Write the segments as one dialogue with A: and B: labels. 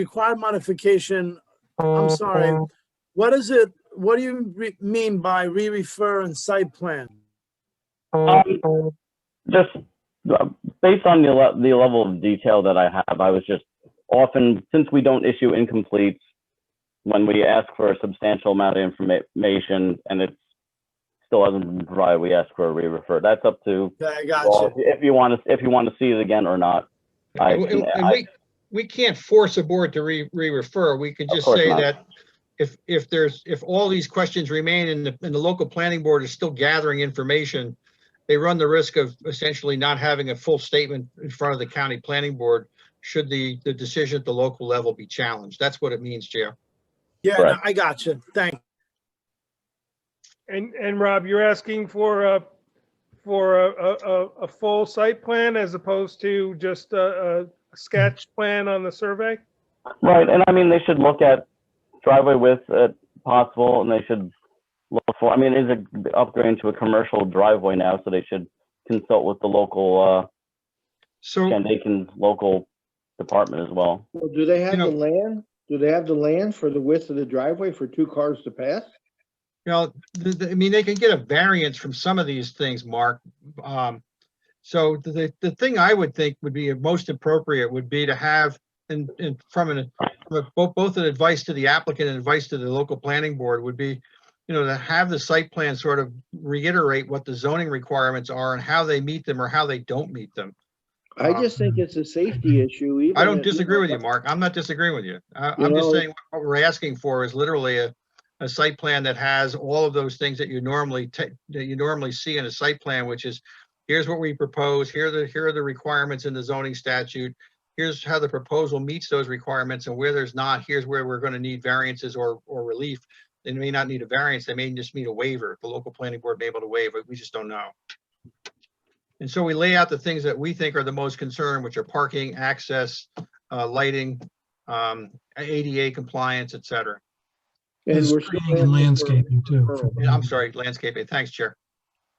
A: required modification, I'm sorry. What is it, what do you re- mean by re-refer and site plan?
B: Um, just uh, based on the, le- the level of detail that I have, I was just often, since we don't issue incompletes, when we ask for a substantial amount of information and it still hasn't been provided, we ask for a re-refer. That's up to,
A: Okay, I got
B: well,
A: you.
B: if you want to, if you want to see it again or not. I-
C: And and- and
B: I-
C: we, we can't force a board to re, re-refer. We could
B: Of
C: just
B: course
C: say
B: not.
C: that if, if there's, if all these questions remain and the, and the local planning board is still gathering information, they run the risk of essentially not having a full statement in front of the county planning board should the, the decision at the local level be challenged. That's what it means, Chair.
A: Yeah, no,
B: Right.
A: I got you. Thank,
D: And, and Rob, you're asking for a, for a, a, a- a full site plan as opposed to just a, a sketch
E: Hmm.
D: plan on the survey?
B: Right, and I mean, they should look at driveway width at possible, and they should look for, I mean, it is a- upgrading to a commercial driveway now, so they should consult with the local, uh,
C: So.
B: and they can, local department as well.
E: Well, do they have
C: know-
E: the land? Do they have the land for the width of the driveway for two cars to pass?
C: You know, the, the, I mean, they can get a variance from some of these things, Mark. Um, so the, the thing I would think would be most appropriate would be to have, and, and from an, both, both an advice to the applicant and advice to the local planning board would be, you know, to have the site plan sort of reiterate what the zoning requirements are and how they meet them or how they don't meet them.
E: I
C: Um,
E: just think it's a safety issue. even
C: I don't
E: if-
C: disagree with you, Mark. I'm not disagreeing with you. I,
E: You
C: I'm just
E: know-
C: saying what we're asking for is literally a, a site plan that has all of those things that you normally take, that you normally see in a site plan, which is here's what we propose, here are the, here are the requirements in the zoning statute. Here's how the proposal meets those requirements and where there's not, here's where we're gonna need variances or, or relief. They may not need a variance, they may just need a waiver. The local planning board may be able to waive it, we just don't know. And so we lay out the things that we think are the most concern, which are parking, access, uh, lighting, um, ADA compliance, et cetera.
E: and
F: There's
E: we're still asking
F: screening and
E: for-
F: landscaping too.
E: referral.
F: for
C: Yeah, I'm
F: that.
C: sorry, landscaping. Thanks, Chair.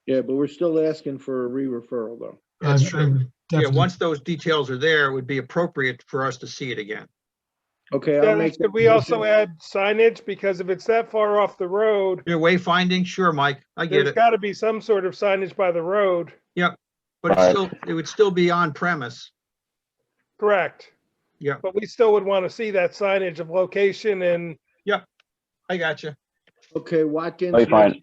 E: Yeah, but we're still asking for a re-referral though.
F: I-
C: That's
F: I
C: true.
F: would
C: Yeah,
F: definitely-
C: once those details are there, it would be appropriate for us to see it again.
E: Okay, I'll
D: Dennis,
E: make.
D: could
E: that
D: we also
E: motion.
D: add signage? Because if it's that far off the road,
C: Your wayfinding, sure, Mike, I get
D: there's
C: it,
D: got to be some sort of signage by the road,
C: but it's
B: Right.
C: still, it would still be on premise.
D: correct?
C: Yeah.
D: But we still would want to see that signage of location and
C: I got you.
E: Okay, Watkins.
B: Oh, you're fine.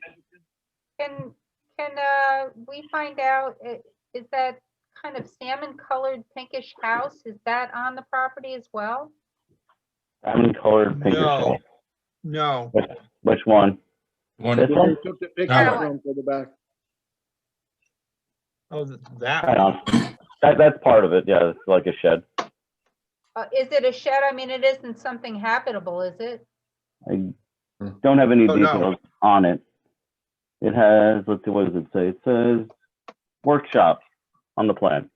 G: Can, can, uh, we find out, i- is that kind of salmon colored pinkish house, is that on the property as well?
B: Salmon colored pink or
C: No.
B: something.
C: No,
B: Which one?
H: One,
B: This
E: Where they
B: one?
E: took the picture
G: Alright.
E: from for the back.
C: oh, th- that,
B: Right
C: one.
B: on. That, that's part of it, yeah, it's like a shed.
G: Uh, is it a shed? I mean, it isn't something habitable, is it?
B: I don't have any
C: Oh, no.
B: details on it. It has, let's see, what does it say? It says workshop on the plan.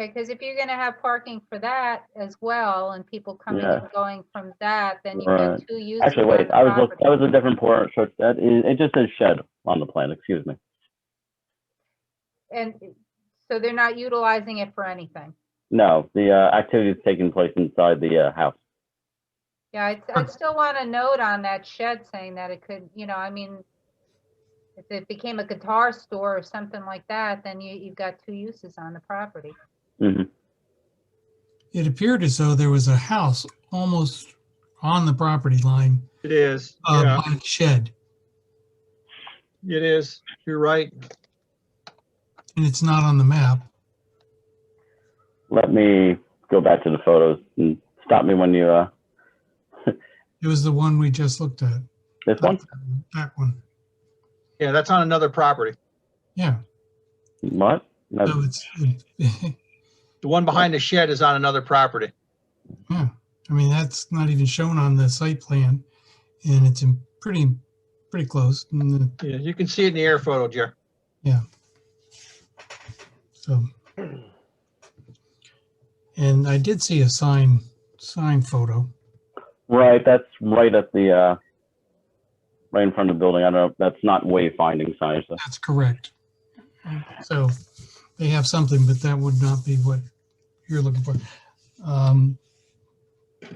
G: Okay, because if you're gonna have parking for that as well, and people coming
B: Yeah.
G: and going from that, then you've got
B: Right.
G: two uses.
B: Actually,
G: on
B: wait,
G: the
B: I was, look-
G: property.
B: that was a different port, so that is, it just says shed on the plan, excuse me.
G: And so they're not utilizing it for anything.
B: No, the uh, activity is taking place inside the uh, house.
G: Yeah, I'd, I'd still want a note on that shed saying that it could, you know, I mean, if it became a guitar store or something like that, then you, you've got two uses on the property.
F: It appeared as though there was a house almost on the property line,
C: it is,
F: uh,
C: yeah,
F: by the shed,
C: it is. You're right.
F: and it's not on the map.
B: Let me go back to the photos and stop me when you, uh,
F: It was the one we just looked at.
B: this one?
F: That one,
C: Yeah, that's on another property.
F: yeah.
B: What? No,
F: So it's, it-
C: The one behind the shed is on another property.
F: yeah, I mean, that's not even shown on the site plan, and it's in pretty, pretty close, and the-
C: Yeah, you can see it in the air photo, Jer.
F: so. And I did see a sign, sign photo.
B: Right, that's right at the, uh, right in front of the building. I don't know, that's not wayfinding signage. though.
F: That's correct. So they have something, but that would not be what you're looking for. Um,